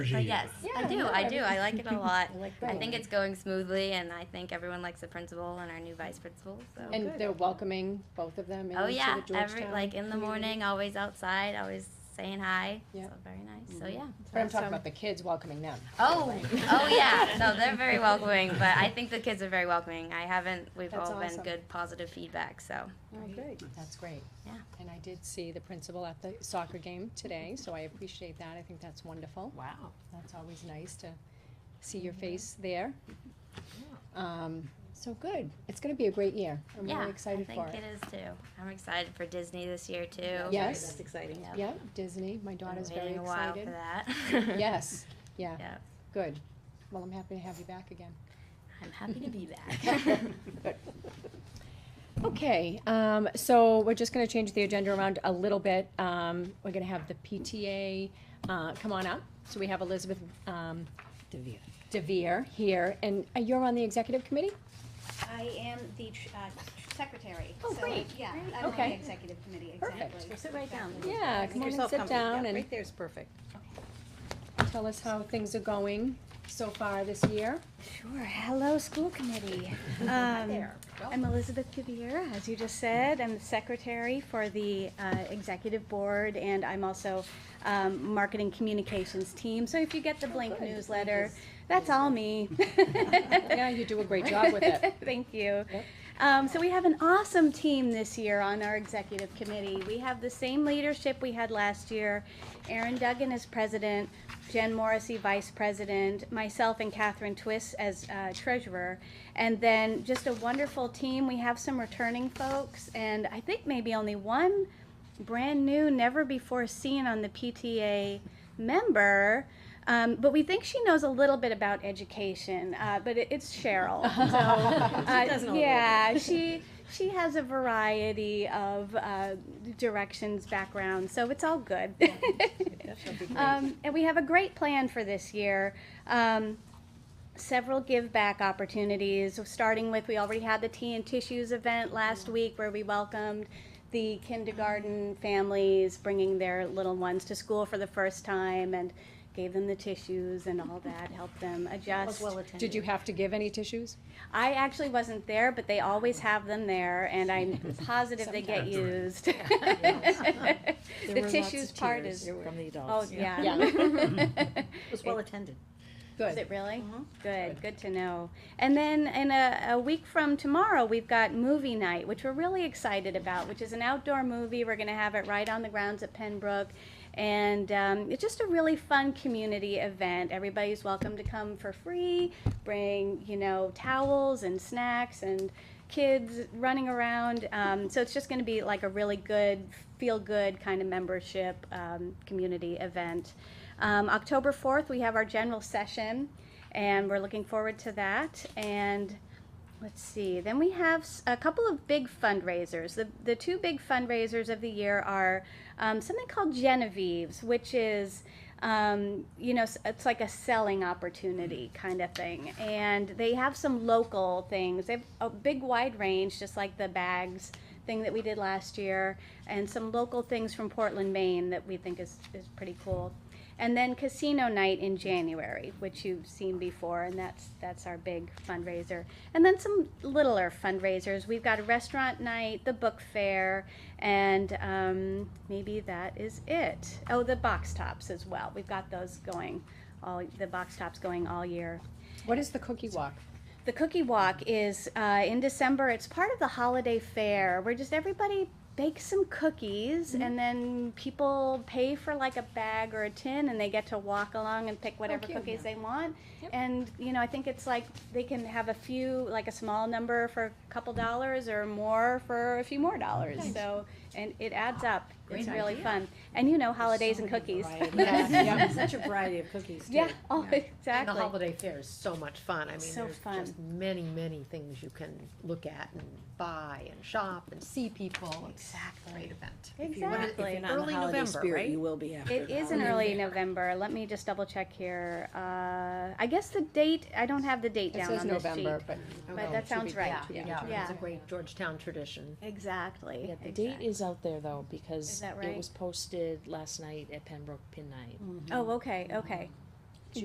But yes, I Yeah, do. no, I do. I like it a lot. I like I that. think it's going smoothly, and I think everyone likes the principal and our new vice principal. So. And they're welcoming both of them into oh the yeah, Georgetown. every like in the morning, always outside, always saying hi. Yeah. Mm-hmm. So very nice. So yeah. But I'm talking about the kids welcoming them. Oh, oh yeah. No, they're very welcoming, but I think the kids are very welcoming. I haven't. We've That's all awesome. been good, positive feedback. So. Oh, good. That's great. Yeah. And I did see the principal at the soccer game today, so I appreciate that. I think that's wonderful. Wow. That's always nice to see your Mm-hmm. face there. Um, so good. It's gonna be a great year. I'm yeah. really excited I for think it. is too. I'm excited for Disney this year too. Yeah. Right, Yes. That's exciting. Yep. Yeah, Disney, my Been daughter's very waiting a while excited. for that. Yes, yeah, Yeah. good. Well, I'm happy to have you back again. I'm happy to be back. Okay, um, so we're just gonna change the agenda around a little bit. Um, we're gonna have the PTA, uh, come on up. So we have Elizabeth, um, Devere. Devere here, and uh, you're on the executive committee? I am the tr- uh, tr- secretary. Oh, so I- great, Yeah, I'm on Okay. the executive committee, exactly. Perfect. Sit right down. Exactly. Yeah, come on and sit down and Right there's perfect. tell us how things are going so far this year. Sure. Hello, school committee. Um, I'm Elizabeth Gabir, as you just said. I'm the secretary for the uh, executive board, and I'm also um, marketing communications team. So if you get the Oh, Blink newsletter, that's all me. Yeah, you do a great job with it. Thank you. Yep. Um, so we have an awesome team this year on our executive committee. We have the same leadership we had last year. Aaron Duggan is president, Jen Morrissey vice president, myself and Catherine Twist as uh, treasurer. And then just a wonderful team. We have some returning folks and I think maybe only one brand new, never before seen on the PTA member. Um, but we think she knows a little bit about education, uh, but it, it's Cheryl. Uh-huh. So, uh, does know a little yeah, she she has a variety of uh, directions, backgrounds, so it's all good. um, and we have a great plan for this year. Um, several give back opportunities, starting with we already had the tea and tissues event last week where we welcomed the kindergarten families bringing their little ones to school for the first time and gave them the tissues and all that, helped them adjust. Did you have to give any tissues? I actually wasn't there, but they always have them there, and I'm positive they get used. The tissues part is, From the oh, adults. yeah. It was well attended. Is it really? Good, good to know. And then in a, a week from tomorrow, we've got movie night, which we're really excited about, which is an outdoor movie. We're going to have it right on the grounds at Pembroke. And um, it's just a really fun community event. Everybody's welcome to come for free. Bring, you know, towels and snacks and kids running around. Um, so it's just going to be like a really good, feel good kind of membership um, community event. Um, October 4th, we have our general session, and we're looking forward to that. And let's see, then we have s- a couple of big fundraisers. The, the two big fundraisers of the year are um, something called Genevieve's, which is um, you know, s- it's like a selling opportunity kind of thing. And they have some local things. They have a big wide range, just like the bags thing that we did last year, and some local things from Portland, Maine that we think is, is pretty cool. And then casino night in January, which you've seen before, and that's that's our big fundraiser. And then some littler fundraisers. We've got a restaurant night, the book fair, and um, maybe that is it. Oh, the box tops as well. We've got those going, all the box tops going all year. What is the cookie walk? The cookie walk is uh, in December. It's part of the holiday fair where just everybody bakes some cookies and then people pay for like a bag or a tin and they get to walk along and pick whatever cute. cookies they want. Yep. And you know, I think it's like they can have a few, like a small number for a couple dollars or more for a few more dollars. So, and it adds up. it's really fun. And you know, holidays and cookies. Yeah, such a variety of cookies too. Yeah, oh, And the exactly. holiday fair is so much fun. I mean, So there's fun. just many, many things you can look at and buy and shop and see people. Exactly. Great event. Exactly. Early November, right? will be after. It is in early November. Let me just double check here. Uh, I guess the date, I don't have the date It down says on this sheet. November, but But that sounds right. Yeah, Yeah. it's a great Georgetown tradition. Exactly. Yeah, the date Exact- is out there though, because that it right? was posted last night at Pembroke Pin Night. Oh, okay, okay.